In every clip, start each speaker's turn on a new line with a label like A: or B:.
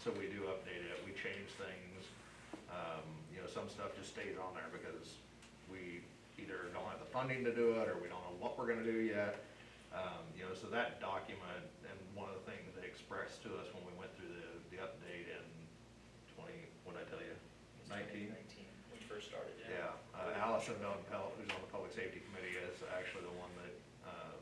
A: so we do update it, we change things. Um, you know, some stuff just stays on there because we either don't have the funding to do it, or we don't know what we're gonna do yet. Um, you know, so that document, and one of the things they expressed to us when we went through the, the update in twenty, what'd I tell you? Nineteen?
B: Nineteen, when we first started, yeah.
A: Yeah, uh, Allison Van Pelt, who's on the Public Safety Committee, is actually the one that, um,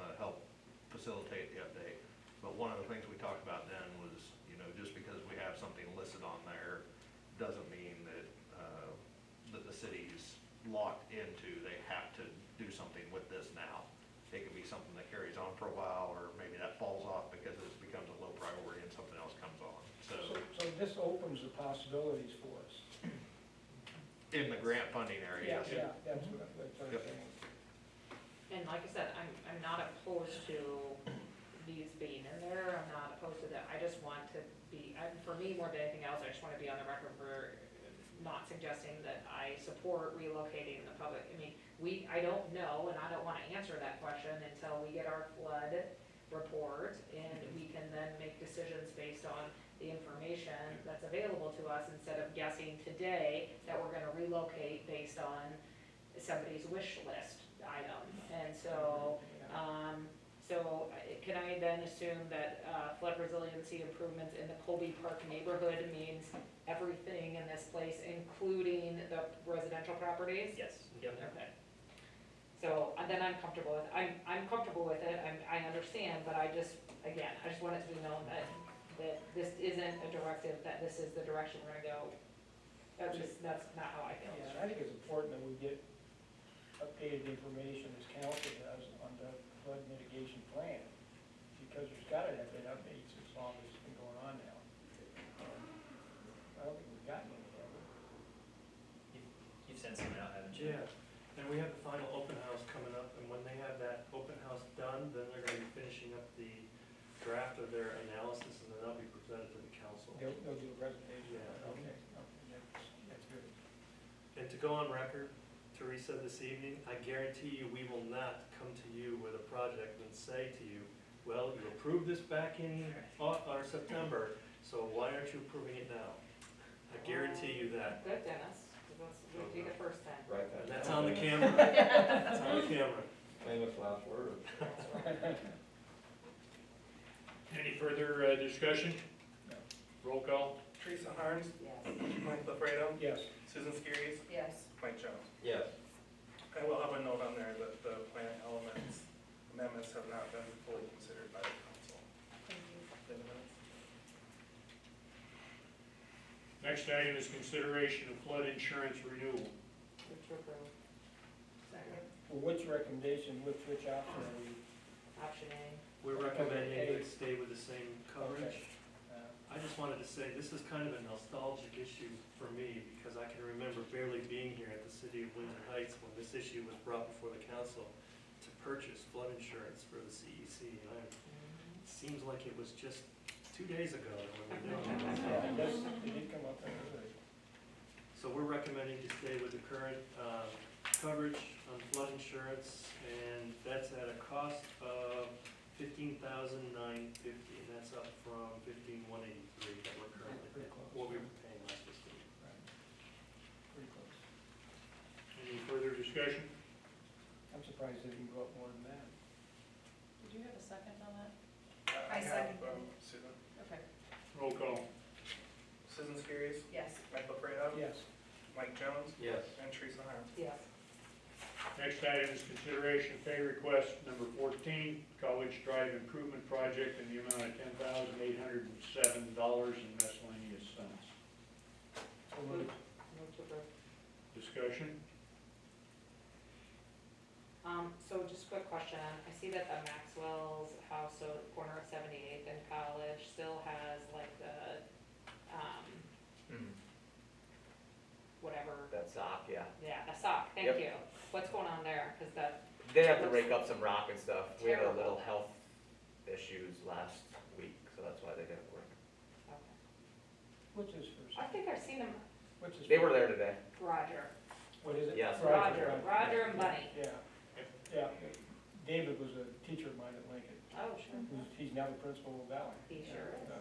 A: uh, helped facilitate the update. But one of the things we talked about then was, you know, just because we have something listed on there, doesn't mean that, uh, that the city's locked into, they have to do something with this now. It could be something that carries on for a while, or maybe that falls off because it becomes a low priority and something else comes on,
C: So, so this opens the possibilities for us.
A: In the grant funding area, yes.
C: Yeah, yeah, that's what, that's what I'm
A: Yep.
C: saying.
D: And like I said, I'm, I'm not opposed to these being in there, I'm not opposed to that, I just want to be, and for me, more than anything else, I just wanna be on the record for not suggesting that I support relocating the public, I mean, we, I don't know, and I don't wanna answer that question until we get our flood report, and we can then make decisions based on the information that's available to us, instead of guessing today that we're gonna relocate based on somebody's wish list item. And so, um, so I- can I then assume that uh, flood resiliency improvements in the Colby Park neighborhood means everything in this place, including the residential properties?
B: Yes, yep.
D: Okay. So, and then I'm comfortable with, I'm, I'm comfortable with it, I'm, I understand, but I just, again, I just want it to be known that, that this isn't a directive, that this is the direction we're gonna go. That's just, that's not how I feel.
C: Yeah, and I think it's important that we get updated information as council does on the flood mitigation plan, because there's gotta have been updates as long as it's been going on now. Um, I don't think we've gotten any of them.
B: You've sent some out, haven't you?
E: Yeah, and we have the final open house coming up, and when they have that open house done, then they're gonna be finishing up the draft of their analysis, and then that'll be presented to the council.
C: They'll, they'll do a presentation.
E: Yeah.
C: Okay, okay, that's, that's good.
E: And to go on record, Teresa, this evening, I guarantee you, we will not come to you with a project and say to you, well, you approved this back in, Au- or September, so why aren't you approving it now? I guarantee you that,
D: Good, Dennis, 'cause that's, would be the first time.
F: Write that
E: and
F: down.
E: that's on the camera, that's on the camera.
F: Famous last word.
G: Any further uh, discussion?
C: No.
G: Roll call?
H: Teresa Harms,
D: Yes.
H: Mike LaFredo,
C: Yes.
H: Susan Skiris,
D: Yes.
H: Mike Jones.
F: Yes.
H: I will have a note on there that the plan elements amendments have not been fully considered by the council. In the minutes.
G: Next item is consideration of flood insurance renewal.
D: Move to approve. Second.
C: Well, which recommendation, which, which option are we,
D: Option A.
E: We're recommending we stay with the same coverage.
C: Okay. uh,
E: I just wanted to say, this is kind of a nostalgic issue for me, because I can remember barely being here at the city of Windsor Heights when this issue was brought before the council to purchase flood insurance for the CEC, and I- it seems like it was just two days ago that we were doing it.
C: yeah, that's, it did come up earlier.
E: So we're recommending to stay with the current um, coverage on flood insurance, and that's at a cost of fifteen thousand nine fifty, and that's up from fifteen one eighty-three that we're currently,
C: Pretty close.
E: what we were paying last fiscal year.
C: Right. Pretty close.
G: Any further discussion?
C: I'm surprised they didn't go up more than that.
I: Did you have a second on that?
H: Uh,
I: I
H: have,
I: second.
H: um, Susan,
I: Okay,
G: Roll call?
H: Susan Skiris,
I: yes.
H: Mike LaFredo,
C: Yes.
H: Mike Jones,
F: Yes.
H: and Teresa Harms.
D: Yes.
G: Next item is consideration of pay request number fourteen, College Drive Improvement Project in the amount of ten thousand eight hundred and seven dollars and miscellaneous cents.
C: So moved.
D: Move to approve.
G: Discussion?
D: Um, so just quick question, I see that the Maxwell's house, so the corner of seventy-eighth and College still has like the, um, whatever,
J: That's sock, yeah.
D: yeah, the sock, thank
J: Yep.
D: you. What's going on there? Cause that,
J: They have to rake up some rock and stuff. We had a
D: Terrible.
J: little health issues last week, so that's why they didn't work.
D: okay.
C: What's his
D: I
C: first?
D: think I've seen them,
C: What's his?
J: They were there today.
D: Roger,
C: What is it?
J: Yes.
D: Roger, Roger and Bunny.
C: Yeah, yeah. David was a teacher of mine at Lincoln.
D: Oh, sure.
C: Who's- He's now the principal of Valley.
D: He sure is.
C: Uh,